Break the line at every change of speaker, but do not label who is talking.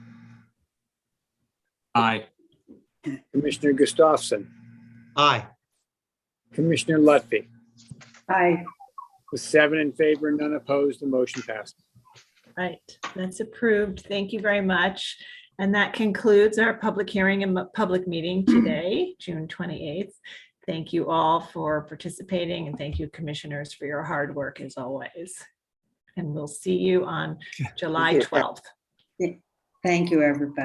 Aye.
Commissioner Gustafson,
Aye.
Commissioner Lutfi.
Aye.
With seven in favor and none opposed, the motion passes.
Right, that's approved. Thank you very much. And that concludes our public hearing and mu- public meeting today, June 28th. Thank you all for participating and thank you commissioners for your hard work as always. And we'll see you on July
you.
12th.
Thank you, everybody.